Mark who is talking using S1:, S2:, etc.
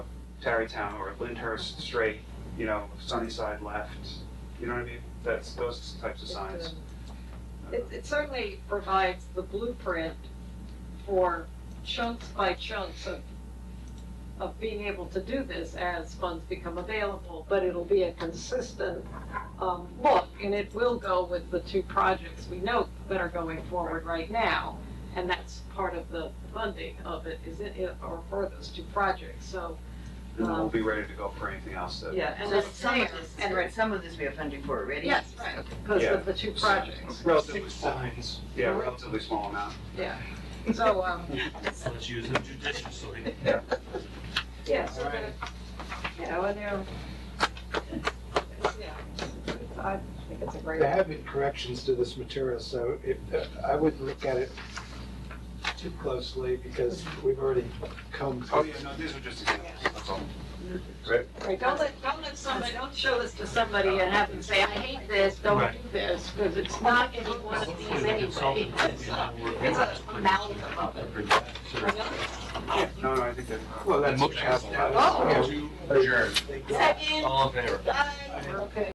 S1: Tarrytown or Lyndhurst straight, you know, Sunnyside left, you know what I mean? That's those types of signs.
S2: It, it certainly provides the blueprint for chunks by chunks of, of being able to do this as funds become available, but it'll be a consistent, um, look, and it will go with the two projects we know that are going forward right now. And that's part of the funding of it, is it, it- or for those two projects, so,
S1: And then we'll be ready to go for anything else that.
S2: yeah, and
S3: So
S2: that's
S3: some
S2: there.
S3: of this,
S2: and-
S3: right, some of this we have funding for already.
S2: Yes, right, because
S1: Yeah.
S2: of the two projects,
S1: Relatively small, yeah, relatively small amount.
S2: yeah. So, um,
S4: Let's use it judiciously.
S2: Yeah, so that, you know, and they're, yeah, I think it's a great.
S5: There have been corrections to this material, so if, I wouldn't look at it too closely because we've already come.
S1: Oh, yeah, no, these are just examples, that's all.
S2: Right, Don't let, don't let somebody, don't show this to somebody and have them say, I hate this, don't do this, because it's not any one of these anyway. It's a- it's a amalgam of it.
S1: No, no, I think that.
S5: Well, that's.
S4: Motion.
S5: Yeah,
S2: Oh.
S5: we-
S4: Adjourn.
S5: they go.
S3: Second,
S4: All in favor?
S3: uh,
S2: Okay.